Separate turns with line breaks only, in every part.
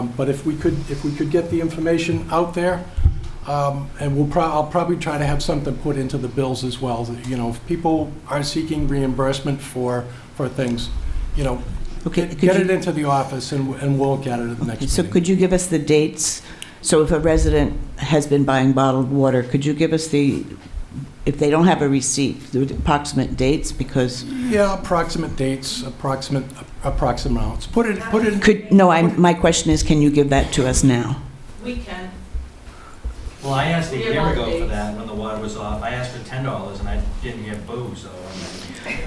Um, But if we could, if we could get the information out there, um, and we'll prob, I'll probably try to have something put into the bills as well, that, you know, if people are seeking reimbursement for, for things, you know,
Okay,
get
could
get
you-
it into the office and, and we'll look at it at the next
So
meeting.
could you give us the dates? So if a resident has been buying bottled water, could you give us the, if they don't have a receipt, the approximate dates? Because,
Yeah, approximate dates, approximate, approximate amounts. Put it, put it,
could, no, I, my question is, can you give that to us now?
We can.
Well, I asked a
We have
year
all
ago for
days.
that, when the water was off, I asked for ten dollars and I didn't get boo, so. I mean,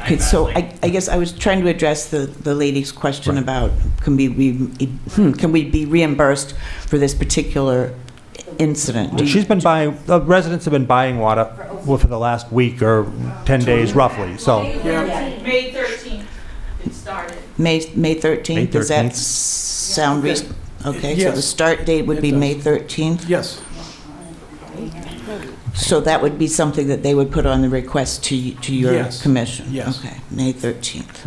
I
Okay, so
got, like,
I, I guess I was trying to address the, the lady's question about, can we, we, hmm, can we be reimbursed for this particular incident? Do you-
She's been buying, the residents have been buying water for the last week or 10 days roughly, so.
yeah,
May 13th, it started.
May, May 13th, does that
13th?
s- sound
Yeah.
reasonable? Okay, so the
Yes.
start date would
It
be
does.
May 13th?
yes,
So that would be something that they would put on the request to, y- to your
Yes.
commission?
Yes.
Okay, May 13th.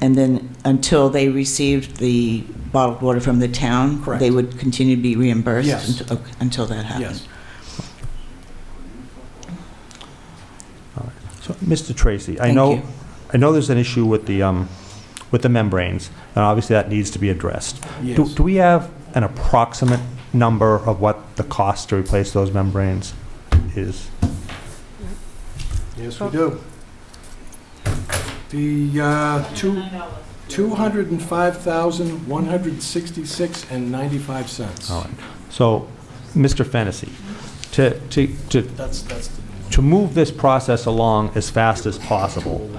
And then until they received the bottled water from the town?
Correct.
They would continue to be reimbursed?
Yes.
unt- ok- Until that happens?
yes.
So, Mr. Tracy, I
Thank
know,
you.
I know there's an issue with the, um, with the membranes, and obviously that needs to be addressed. Do
Yes.
do we have an approximate number of what the cost to replace those membranes is?
Yes, we do. The uh, two,
$9.
two hundred and five thousand one hundred sixty-six and ninety-five cents.
Oh,
All right. So, Mr. Fennessy, to, to, to
That's, that's the.
to move this process along as fast as possible,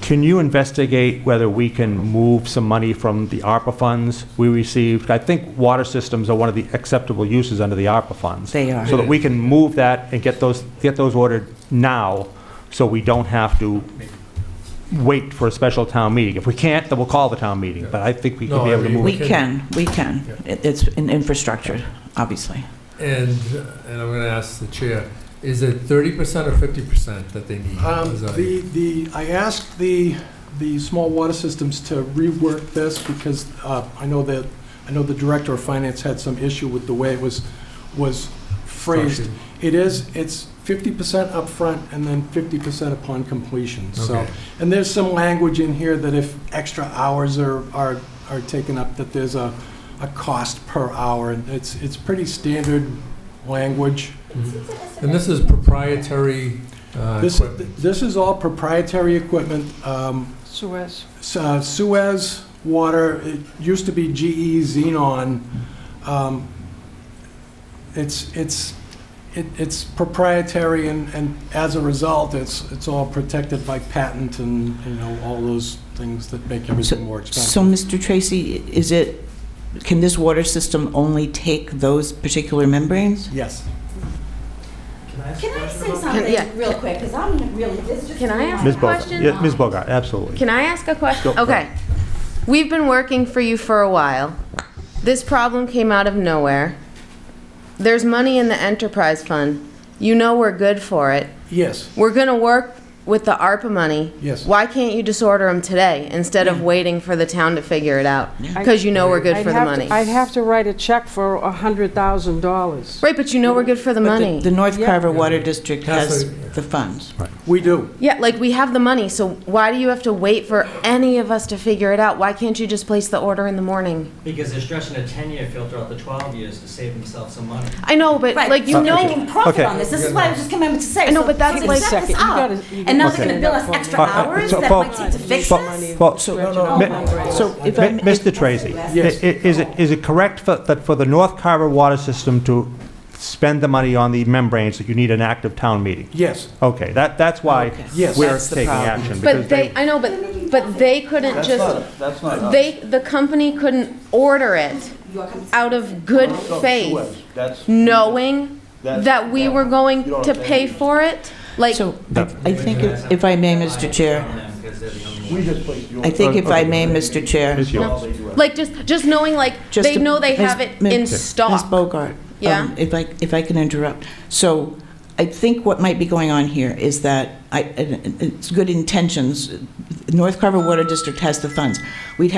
can you investigate whether we can move some money from the ARPA funds we received? I think water systems are one of the acceptable uses under the ARPA funds.
They are.
So that we can move that and get those, get those ordered now, so we don't have to wait for a special town meeting. If we can't, then we'll call the town meeting, but I think we can
No,
be
I
able to
mean-
move
We
it.
can, we can. It- It's in infrastructure, obviously.
And, and I'm going to ask the chair, is it thirty percent or fifty percent that they need?
Um,
Is that-
The, the, I asked the, the small water systems to rework this because uh, I know that, I know the director of finance had some issue with the way it was, was phrased. It is, it's fifty percent upfront and then fifty percent upon completion, so.
Okay.
And there's some language in here that if extra hours are, are, are taken up, that there's a, a cost per hour. And it's, it's pretty standard language.
And this is proprietary uh,
This,
equipment?
this is all proprietary equipment. um,
Suez.
S- uh, Suez Water, it used to be GE Xenon. Um, It's, it's, it- it's proprietary, and, and as a result, it's, it's all protected by patent and, you know, all those things that make everything more
So,
expensive.
Mr. Tracy, is it, can this water system only take those particular membranes?
Yes.
Can I ask a
Can I
question
say
about that?
yeah.
something real quick? Because I'm really, this just.
Can I ask
Ms.
a
Bogart,
question?
yeah, Ms. Bogart, absolutely.
Can I ask a
Go
question?
for it.
Okay. We've been working for you for a while. This problem came out of nowhere. There's money in the enterprise fund. You know we're good for it.
Yes,
We're going to work with the ARPA money.
Yes.
Why can't you just order them today instead of waiting for the town to figure it out? Because you know we're good
I'd
for the
have to-
money.
I'd have to write a check for a hundred thousand dollars.
Right, but you know we're good for the
But
money.
The North
Yeah.
Carver Water District
That's
has the funds.
we do.
Yeah, like we have the money, so why do you have to wait for any of us to figure it out? Why can't you just place the order in the morning?
Because they're stretching a ten-year filter out to twelve years to save themselves some money.
I know, but
Right,
like you
so
know,
they can profit
Okay.
on this. This is what I was just coming to say.
I know,
So
but that's
if they
like-
set this
Second,
up,
gotta-
And now
Okay.
they're gonna bill us extra
Uh, uh,
hours
so
that
Paul-
might take to fix
Paul-
this? Oh
Paul-
So,
Mi-
so if I,
Mi-
may-
Mr. Tracy, i-
Yes.
i- is it, is it correct for- that for the North Carver Water System to spend the money on the membranes, that you need an active town meeting?
Yes,
Okay, that, that's why
Okay.
Yes.
we're
That's the
taking
problem.
action. because
but they, I know, but but they couldn't just
That's not us.
they the company couldn't order it out of good faith,
That's.
knowing
That's-
that we were going
You don't
to
understand.
pay for it. Like
so I I think, if if I may, Mr. Chair,
Because they're the only ones.
We just placed you on.
I think if I may, Mr. Chair,
Ms. Yule.
All they do is-
like just just knowing like
just...
they
to-
know they
Ms.
have it
Ms.
in
Ms.
stock.
Bogart,
Yeah?
um, if I, if I can interrupt. So I think what might be going on here is that I, and it's good intentions. North Carver Water District has the funds. We'd have